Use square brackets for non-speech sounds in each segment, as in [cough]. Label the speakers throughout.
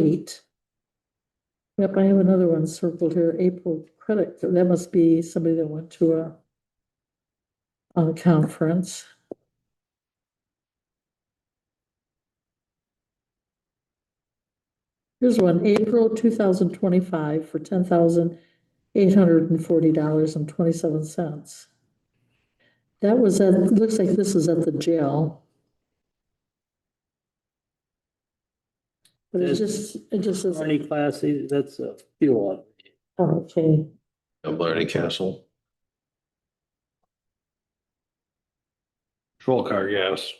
Speaker 1: eight. Yep, I have another one circled here, April credit, so that must be somebody that went to a a conference. Here's one, April two thousand twenty-five for ten thousand eight hundred and forty dollars and twenty-seven cents. That was at, looks like this is at the jail. But it
Speaker 2: Is-
Speaker 1: just, it just says,
Speaker 2: Any class, either- that's a fuel.
Speaker 1: oh, okay,
Speaker 3: Blarney Castle. Patrol car gas.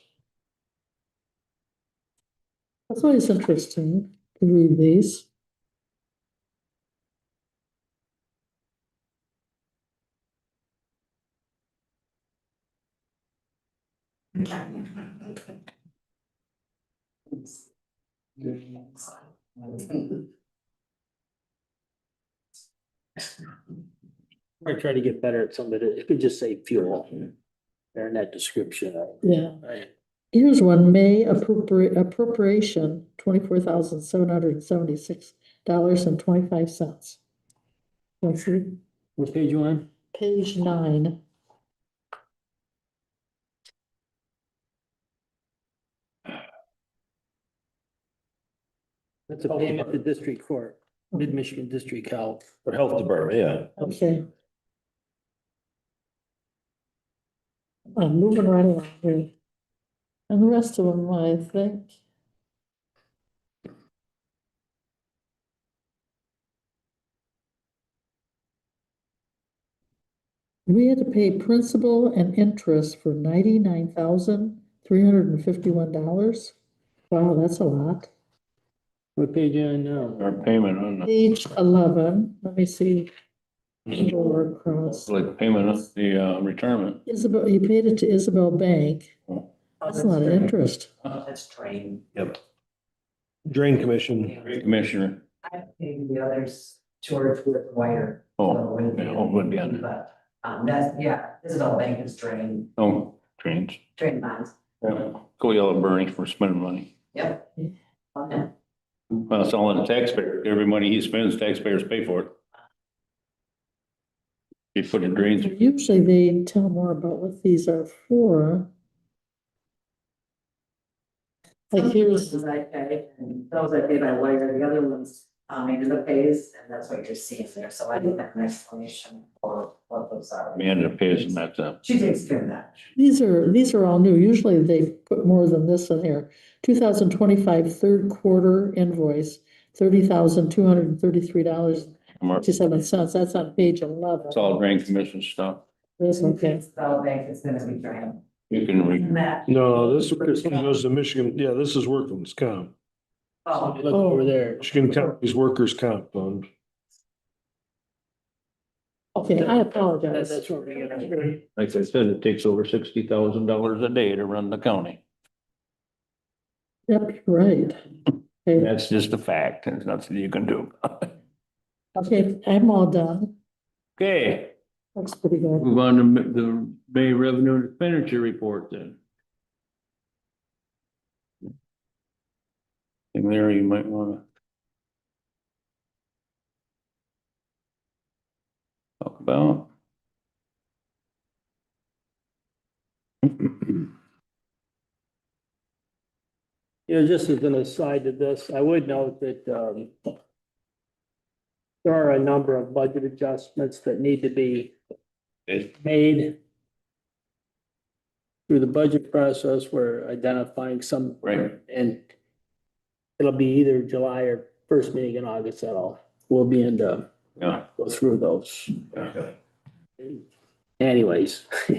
Speaker 1: that's always interesting to read these.
Speaker 2: We're trying to get better at some of it. It could just say fuel. There in that description.
Speaker 1: Yeah,
Speaker 2: Right.
Speaker 1: here's one, May appropriate appropriation, twenty-four thousand seven hundred and seventy-six dollars and twenty-five cents. Let's see,
Speaker 2: What page you on?
Speaker 1: page nine,
Speaker 2: That's a payment to district court, mid-Michigan district health.
Speaker 3: For Health Department, yeah.
Speaker 1: okay. I'm Uh, moving right along here. And the rest of them, I think. We had to pay principal and interest for ninety-nine thousand, three hundred and fifty-one dollars. Wow, that's a lot.
Speaker 2: What page you on now?
Speaker 4: Our payment on, the-
Speaker 1: Page eleven, let me see, go
Speaker 4: it's
Speaker 1: across.
Speaker 4: like payment on the uh, retirement.
Speaker 1: Isabel, you paid it to Isabel Bank. That's a lot of interest.
Speaker 5: That's train.
Speaker 3: Drain Commission.
Speaker 4: Commissioner,
Speaker 5: I think the others, George would acquire.
Speaker 4: oh, yeah, oh, would be on there.
Speaker 5: But, um, that's, yeah, this is all bank is drain,
Speaker 4: oh, trains.
Speaker 5: drain bonds,
Speaker 4: Yeah. Go yell at Bernie for spending money.
Speaker 5: yep. On that.
Speaker 4: Well, it's all on the taxpayer. Every money he spends, taxpayers pay for it. He put in drains.
Speaker 1: Usually they tell more about what these are for. Like here's,
Speaker 5: Those I pay, and those I pay by wire, the other ones, um, maybe the pays, and that's what you're seeing there, so I think that an explanation for what those are.
Speaker 4: Amanda pays and that's uh
Speaker 5: She takes care of that.
Speaker 1: these are, these are all new. Usually they put more than this in here. 2025 third quarter invoice, thirty thousand two hundred and thirty-three dollars fifty-seven cents. That's on page eleven.
Speaker 4: It's all drain commission stuff.
Speaker 1: That's okay.
Speaker 5: It's all bank is gonna be drain.
Speaker 4: You can read.
Speaker 5: And that,
Speaker 3: No, Uh, this this goes to Michigan, yeah, this is workman's comp.
Speaker 5: oh,
Speaker 2: Look over there.
Speaker 3: Michigan County's Workers' Comp Fund.
Speaker 1: Okay, I
Speaker 2: That-
Speaker 1: apologize.
Speaker 2: That's where we get our.
Speaker 4: Like I said, it takes over sixty thousand dollars a day to run the county.
Speaker 1: Yep, right. Okay.
Speaker 4: That's just a fact. There's nothing you can do.
Speaker 1: Okay, I'm all done.
Speaker 4: Okay.
Speaker 1: Looks pretty good.
Speaker 4: Move on to the May revenue and expenditure report then. And there you might wanna. Talk about.
Speaker 2: You know, just as an aside to this, I would note that, um, there are a number of budget adjustments that need to be
Speaker 4: Okay.
Speaker 2: made through the budget process. We're identifying some.
Speaker 4: Right.
Speaker 2: And it'll be either July or first meeting in August at all. We'll be in the,
Speaker 4: Yeah.
Speaker 2: go through those. Anyways, [laughs]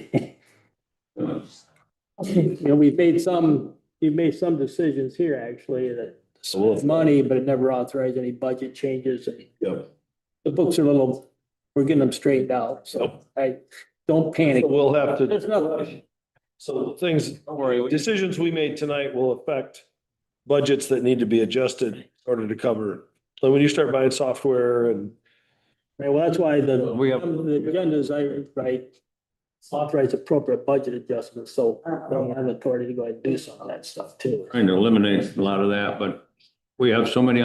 Speaker 1: Okay,
Speaker 2: you know, we've made some, we've made some decisions here actually that
Speaker 4: So we'll-
Speaker 2: money, but it never authorized any budget changes.
Speaker 3: Yep.
Speaker 2: The books are a little, we're getting them straightened out, so I, don't panic.
Speaker 3: We'll have
Speaker 2: There's
Speaker 3: to.
Speaker 2: nothing.
Speaker 3: So things,
Speaker 4: Don't worry, we-
Speaker 3: decisions we made tonight will affect budgets that need to be adjusted in order to cover. So when you start buying software and
Speaker 2: Right, well, that's why the,
Speaker 4: We have-
Speaker 2: the agenda is, I, right, authorize appropriate budget adjustments, so I don't have authority to go ahead and do some of that stuff too.
Speaker 4: trying to eliminate a lot of that, but we have so many